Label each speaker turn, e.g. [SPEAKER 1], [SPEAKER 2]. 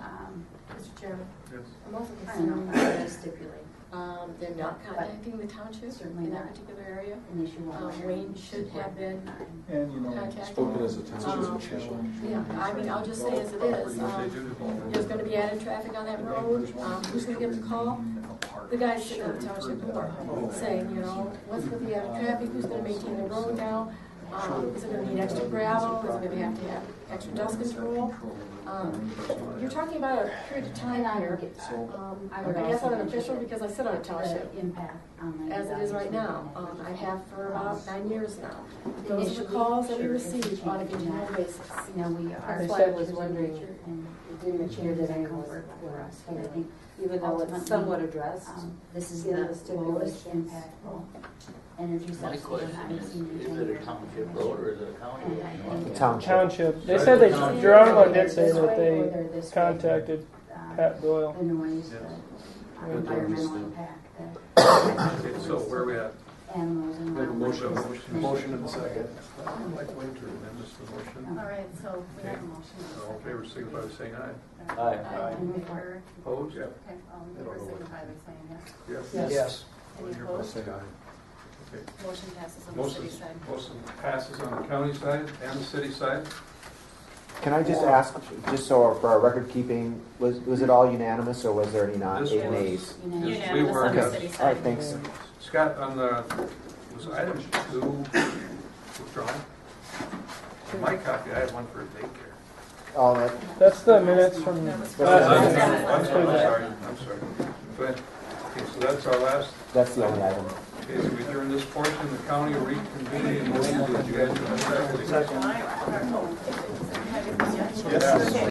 [SPEAKER 1] um,
[SPEAKER 2] Chairman,
[SPEAKER 3] Yes.
[SPEAKER 2] I'm also
[SPEAKER 1] I don't
[SPEAKER 2] concerned
[SPEAKER 1] know,
[SPEAKER 2] about
[SPEAKER 1] I stipulate
[SPEAKER 2] um, them not
[SPEAKER 1] But
[SPEAKER 2] contacting the township
[SPEAKER 1] certainly
[SPEAKER 2] in that
[SPEAKER 1] not.
[SPEAKER 2] particular area.
[SPEAKER 1] an issue on
[SPEAKER 2] Uh,
[SPEAKER 1] where
[SPEAKER 2] Wayne
[SPEAKER 1] you
[SPEAKER 2] should
[SPEAKER 1] work.
[SPEAKER 2] have been uh,
[SPEAKER 4] And, you know,
[SPEAKER 2] contacted.
[SPEAKER 5] Spoken as a township
[SPEAKER 2] Um,
[SPEAKER 5] official.
[SPEAKER 2] Yeah, I mean, I'll just say as it is, um, there's gonna be added traffic on that road, um, who's gonna get the call? The guys sitting at the township board saying, you know, what's with the added traffic, who's gonna maintain the road now? Um, is it gonna need extra gravel, is it gonna have to have extra dust control? Um, You're talking about a period of
[SPEAKER 1] And
[SPEAKER 2] time
[SPEAKER 1] I
[SPEAKER 2] here,
[SPEAKER 1] don't get that.
[SPEAKER 2] um,
[SPEAKER 1] I
[SPEAKER 2] I
[SPEAKER 1] would
[SPEAKER 2] guess I'm an
[SPEAKER 1] also
[SPEAKER 2] official
[SPEAKER 1] mention
[SPEAKER 2] because I sit on a township.
[SPEAKER 1] The impact on the.
[SPEAKER 2] as it is right now. Um, I have for about nine years now. Those are the calls that we receive on a continual basis.
[SPEAKER 1] You know, we are.
[SPEAKER 6] That's why I was wondering,
[SPEAKER 1] And,
[SPEAKER 6] didn't appear that anyone was,
[SPEAKER 1] for us, but I think,
[SPEAKER 6] even though it's somewhat addressed.
[SPEAKER 1] um, this is
[SPEAKER 6] Yeah,
[SPEAKER 1] the
[SPEAKER 6] the
[SPEAKER 1] lowest
[SPEAKER 6] stipulations.
[SPEAKER 1] impactful energy
[SPEAKER 7] My
[SPEAKER 1] subsidy.
[SPEAKER 7] question
[SPEAKER 1] I've
[SPEAKER 7] is,
[SPEAKER 1] seen
[SPEAKER 7] is it a township road or is it a county?
[SPEAKER 1] And I
[SPEAKER 7] road?
[SPEAKER 1] think-
[SPEAKER 8] Township. They said they, Geronimo did say that they
[SPEAKER 1] Whether this way,
[SPEAKER 8] contacted
[SPEAKER 1] uh,
[SPEAKER 8] Pat Doyle.
[SPEAKER 1] The noise, the
[SPEAKER 3] Yes.
[SPEAKER 1] uh, environmental impact,
[SPEAKER 3] Okay,
[SPEAKER 1] the.
[SPEAKER 3] so where are we at?
[SPEAKER 1] Animals and.
[SPEAKER 5] We have a motion,
[SPEAKER 3] Motion.
[SPEAKER 5] motion and a second.
[SPEAKER 3] I'd like Wayne to amend this to motion.
[SPEAKER 1] All
[SPEAKER 2] right, so
[SPEAKER 3] Uh, we have a All in favor, signify by saying aye.
[SPEAKER 7] Aye.
[SPEAKER 1] And before,
[SPEAKER 3] Opposed? Yeah.
[SPEAKER 2] okay, um,
[SPEAKER 3] favor signify
[SPEAKER 2] by saying yes.
[SPEAKER 3] Yes.
[SPEAKER 8] Yes.
[SPEAKER 3] One here, both say aye. Okay.
[SPEAKER 2] Motion passes
[SPEAKER 3] Motion, motion passes on the county side and the city side.
[SPEAKER 9] Can I just ask, just so for our record keeping, was, was it all unanimous or was there any not,
[SPEAKER 3] This
[SPEAKER 9] eight
[SPEAKER 3] was-
[SPEAKER 9] nays?
[SPEAKER 1] you know.
[SPEAKER 3] Yes, we were, uh, yes.
[SPEAKER 9] All right, thanks.
[SPEAKER 3] Scott, on the, was item two withdrawn? My copy, I had one for daycare.
[SPEAKER 9] All that,
[SPEAKER 8] That's the minutes from
[SPEAKER 3] I'm
[SPEAKER 8] last
[SPEAKER 3] sorry, I'm
[SPEAKER 8] Tuesday.
[SPEAKER 3] sorry, I'm sorry. Go ahead. Okay, so that's our last,
[SPEAKER 9] that's the only item.
[SPEAKER 3] okay, so we adjourn this portion, the county will reconvene in motion to adjourn.
[SPEAKER 4] Second.
[SPEAKER 3] Yes.